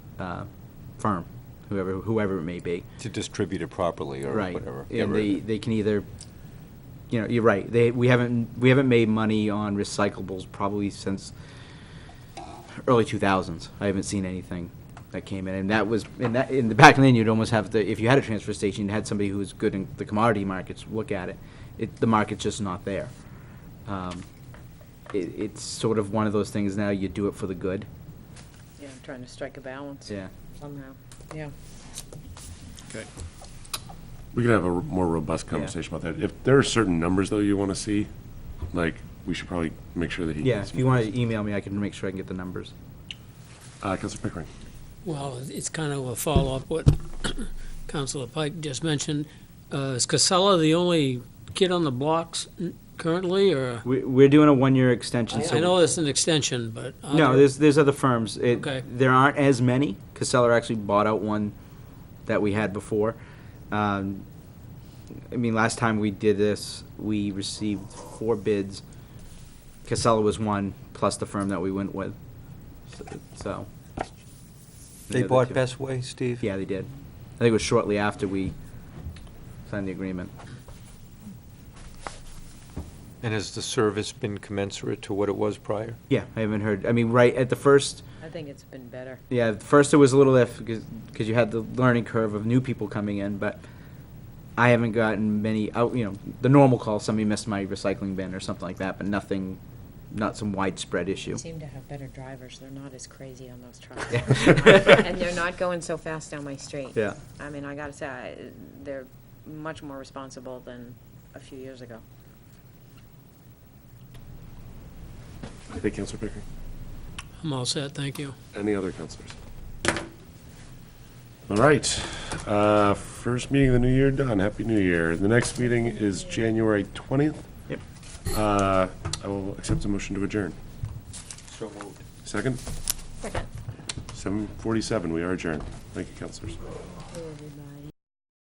uh, firm, whoever, whoever it may be. To distribute it properly or Right. whatever. Yeah, And they, right. they can either, you know, you're right, they, we haven't, we haven't made money on recyclables probably since early two thousands. I haven't seen anything that came in, and that was, and that, in the back then, you'd almost have to, if you had a transfer station, you had somebody who was good in the commodity markets, look at it. It, the market's just not there. Um, It, it's sort of one of those things now, you do it for the good, Yeah, I'm trying to strike a balance yeah. somehow, yeah. Okay. We could have a r- more robust conversation about that. If there are certain numbers, though, you want to see, like, we should probably make sure that he. Yeah, if you want to email me, I can make sure I can get the numbers. Uh, Counselor Pickering. Well, it's kind of a follow-up what Councilor Pike just mentioned. Uh, Is Casella the only kid on the blocks n- currently, or? We, we're doing a one-year extension, so. I know it's an extension, but. No, other- there's, there's other firms. It- Okay. There aren't as many. Casella actually bought out one that we had before. Um, I mean, last time we did this, we received four bids. Casella was one, plus the firm that we went with, So- so. They Yeah, bought two. Best Way, Steve? Yeah, they did. I think it was shortly after we signed the agreement. And has the service been commensurate to what it was prior? Yeah, I haven't heard, I mean, right at the first, I think it's been better. Yeah, at first it was a little if because you had the learning curve of new people coming in, but I haven't gotten many out. You know, the normal call somebody missed my recycling bin or something like that, but nothing, not some widespread issue. They seem to have better drivers, they're not as crazy on those trucks. Yeah. And they're not going so fast down my street. Yeah. I mean, I gotta say, I- they're much more responsible than a few years ago. Okay, Counselor Pickering. I'm all set, thank you. Any other counselors? All right. Uh, first meeting of the new year done. Happy New Year. The next meeting is January 20th. Yep. Uh, I will accept a motion to adjourn. So moved. Second? Second. 7:47. We are adjourned. Thank you, counselors. Who would we buy?